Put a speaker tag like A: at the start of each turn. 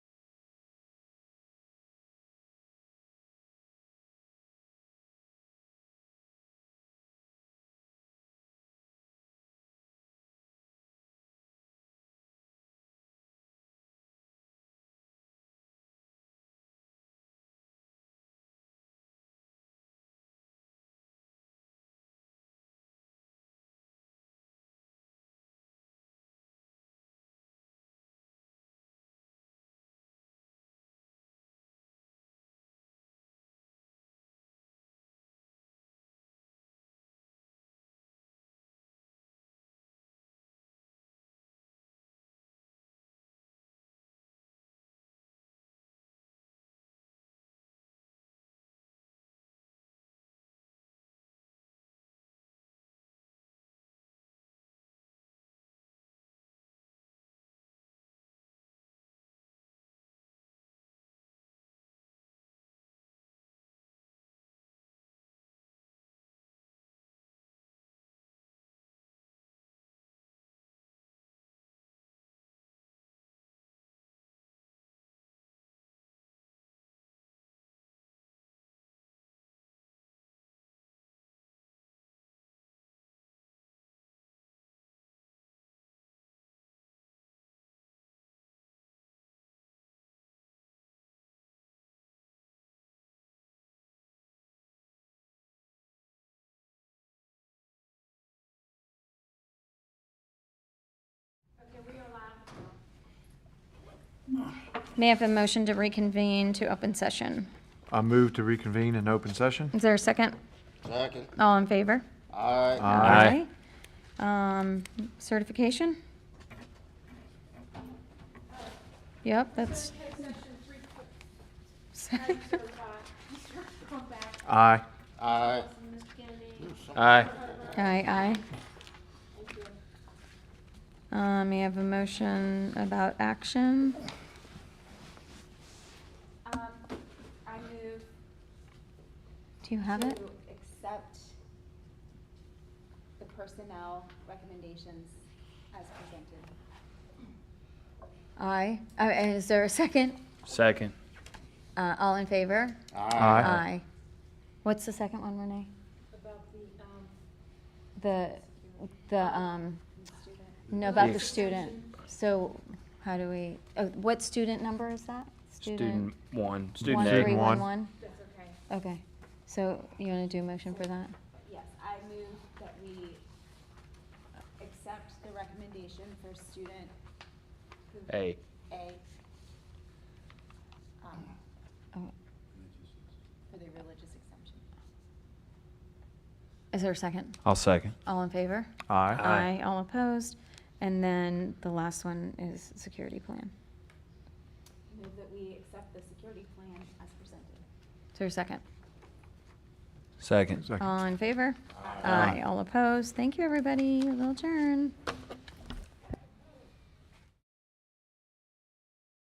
A: May I have a motion to reconvene to open session?
B: I move to reconvene in open session.
A: Is there a second?
C: Second.
A: All in favor?
C: Aye.
B: Aye.
A: Aye. Um, certification? Yep, that's.
B: Aye.
C: Aye.
D: Aye.
A: Aye, aye. Um, may I have a motion about action?
E: Um, I move
A: Do you have it?
E: to accept the personnel recommendations as presented.
A: Aye. Uh, is there a second?
D: Second.
A: Uh, all in favor?
B: Aye.
A: What's the second one, Renee?
E: About the, um,
A: The, the, um,
E: student.
A: no, about the student. So how do we, oh, what student number is that?
D: Student one.
A: One,
D: Student
A: three,
D: A.
A: one,
B: one.
A: one?
E: That's okay.
A: Okay. So you want to do a motion for that?
E: Yes, I move that we accept the recommendation for student. who-
D: A.
E: A. um,
A: Oh,
E: For the religious exemption.
A: Is there a second?
D: I'll second.
A: All in favor?
B: Aye.
D: Aye.
A: All opposed? And then the last one is security plan.
E: Move that we accept the security plan as presented.
A: Is there a second?
D: Second.
B: Second.
A: All in favor?
D: Aye.
A: All opposed? Thank you, everybody. We'll adjourn.